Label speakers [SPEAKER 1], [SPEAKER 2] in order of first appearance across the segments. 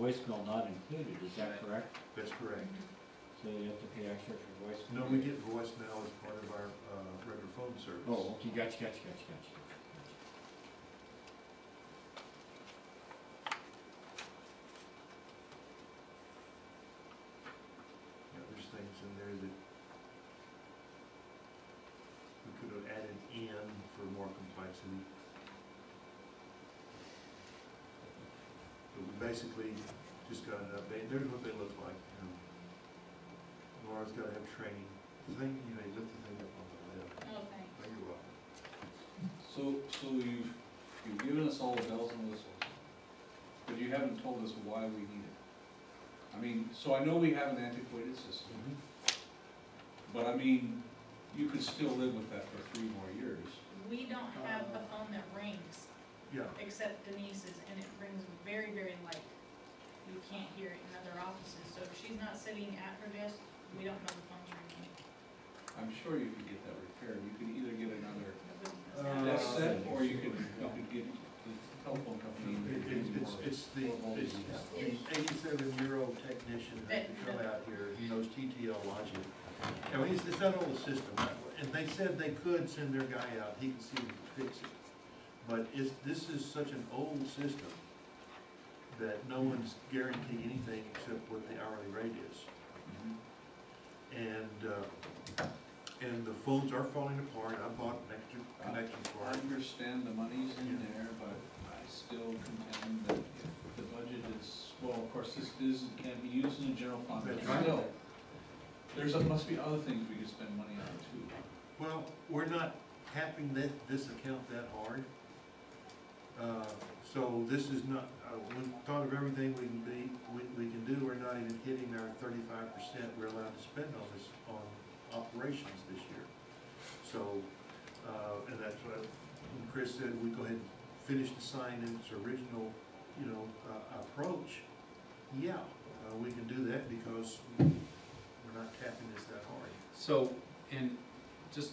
[SPEAKER 1] voicemail not included, is that correct?
[SPEAKER 2] That's correct.
[SPEAKER 1] So you have to pay extra for voicemail?
[SPEAKER 2] No, we get voicemail as part of our uh, regular phone service.
[SPEAKER 1] Oh, okay, gotcha, gotcha, gotcha, gotcha.
[SPEAKER 2] Yeah, there's things in there that we could have added in for more complexity. But we basically just got an update, there's what they look like, you know. Laura's gotta have training, the thing, you may lift the thing up on the left,
[SPEAKER 3] Okay.
[SPEAKER 2] oh, you're welcome.
[SPEAKER 4] So, so you've, you've given us all the bells and whistles, but you haven't told us why we need it. I mean, so I know we have an antiquated system, but I mean, you could still live with that for three more years.
[SPEAKER 3] We don't have a phone that rings
[SPEAKER 2] Yeah,
[SPEAKER 3] except Denise's and it rings very, very light. You can't hear it in other offices, so if she's not sitting at her desk, we don't know the phone's ringing.
[SPEAKER 4] I'm sure you could get that repaired, you could either get another
[SPEAKER 3] It wouldn't
[SPEAKER 2] Uh,
[SPEAKER 3] sound
[SPEAKER 4] desk
[SPEAKER 3] right.
[SPEAKER 4] set, or you could, you could get the telephone company.
[SPEAKER 2] It-
[SPEAKER 4] to
[SPEAKER 2] it-
[SPEAKER 4] do
[SPEAKER 2] It's,
[SPEAKER 4] more.
[SPEAKER 2] it's the, it's the eighty-seven-year-old technician who had to come out here, he knows TTL logic. And he's, it's that old system, and they said they could send their guy out, he could see if he could fix it. But it's, this is such an old system that no one's guaranteeing anything except what the hourly rate is.
[SPEAKER 4] Mhm.
[SPEAKER 2] And, uh, and the phones are falling apart, I bought an extra connection
[SPEAKER 4] I
[SPEAKER 2] for it.
[SPEAKER 4] understand the money's in there, but I still contend that if the budget is, well, of course, this is, can't be used in the general fund, but
[SPEAKER 2] That's right.
[SPEAKER 4] still. There's, must be other things we could spend money on too.
[SPEAKER 2] Well, we're not tapping that, this account that hard. Uh, So this is not, uh, we thought of everything we can be, we, we can do, we're not even hitting our thirty-five percent we're allowed to spend on this, on operations this year. So, uh, and that's what, when Chris said, we go ahead and finish the sign in its original, you know, uh, approach. Yeah, uh, we can do that because we're not tapping this that hard.
[SPEAKER 5] So, and just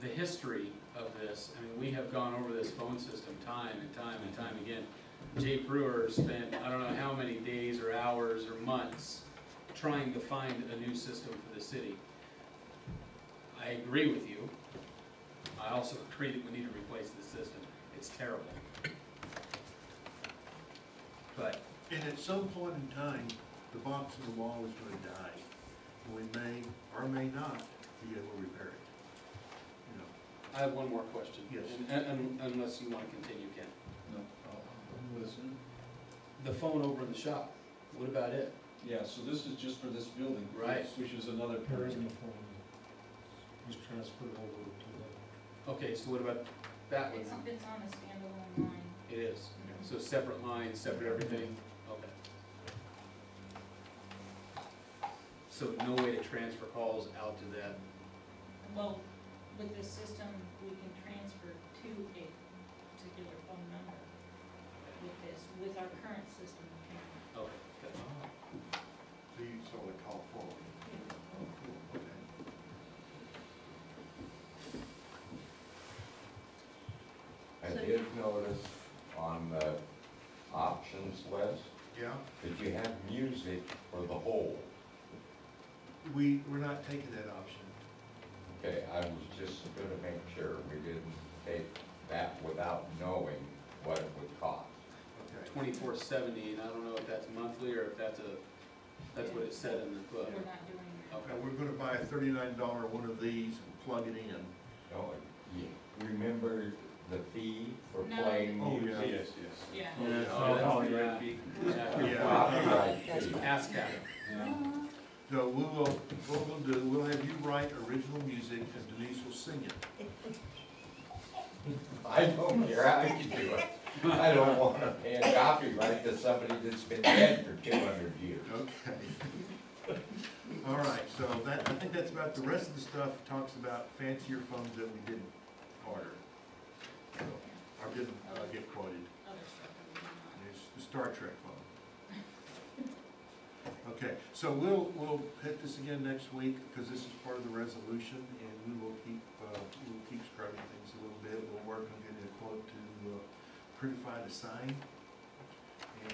[SPEAKER 5] the history of this, I mean, we have gone over this phone system time and time and time again. Jay Brewer spent, I don't know how many days or hours or months trying to find a new system for the city. I agree with you. I also agree that we need to replace the system. It's terrible. But
[SPEAKER 2] And at some point in time, the box in the wall is gonna die. And we may or may not be able to repair it. You know,
[SPEAKER 5] I have one more question.
[SPEAKER 2] Yes.
[SPEAKER 5] And- and- Unless you want to continue, Ken.
[SPEAKER 4] No, I'll listen.
[SPEAKER 5] The phone over in the shop, what about it?
[SPEAKER 4] Yeah, so this is just for this building.
[SPEAKER 5] Right.
[SPEAKER 4] Which is another
[SPEAKER 6] There
[SPEAKER 4] period.
[SPEAKER 6] isn't a phone, was transferred over to the,
[SPEAKER 5] Okay, so what about that
[SPEAKER 3] It's,
[SPEAKER 5] one?
[SPEAKER 3] it's on a standalone line.
[SPEAKER 5] It is, so separate lines, separate everything, okay. So no way to transfer calls out to that,
[SPEAKER 3] Well, with this system, we can transfer to a particular phone number with this, with our current system. we can't.
[SPEAKER 5] okay, good.
[SPEAKER 2] So you saw the call forward. Oh, cool, okay.
[SPEAKER 7] I
[SPEAKER 3] So-
[SPEAKER 7] did notice on the options list
[SPEAKER 2] Yeah,
[SPEAKER 7] that you have music for the whole.
[SPEAKER 2] we, we're not taking that option.
[SPEAKER 7] Okay, I was just gonna make sure we didn't take that without knowing what it would cost.
[SPEAKER 2] Okay.
[SPEAKER 5] Twenty-four seventy, and I don't know if that's monthly or if that's a, that's what it said in the book.
[SPEAKER 3] We're not doing that.
[SPEAKER 2] Okay, we're gonna buy a thirty-nine dollar one of these and plug it in.
[SPEAKER 7] Don't, you remember the fee for
[SPEAKER 3] No.
[SPEAKER 7] playing
[SPEAKER 2] Oh,
[SPEAKER 7] music?
[SPEAKER 2] yeah.
[SPEAKER 4] Yes, yes.
[SPEAKER 3] Yeah.
[SPEAKER 5] Oh,
[SPEAKER 4] Oh,
[SPEAKER 5] that's-
[SPEAKER 4] yeah.
[SPEAKER 5] Yeah.
[SPEAKER 7] Copyright fee.
[SPEAKER 5] Ask that,
[SPEAKER 2] No, we will, what we'll do, we'll have you write original music and Denise will sing it.
[SPEAKER 7] I don't care how you do it. I don't wanna pay a copyright to somebody that's been dead for two hundred years.
[SPEAKER 2] Okay. All right, so that, I think that's about, the rest of the stuff talks about fancier phones that we didn't order. So, Or didn't uh, get quoted,
[SPEAKER 3] Other stuff that we do not.
[SPEAKER 2] and it's the Star Trek phone. Okay, so we'll, we'll hit this again next week, because this is part of the resolution, and we will keep, uh, we'll keep scrubbing things a little bit. We'll work on getting a quote to uh, prettify the sign,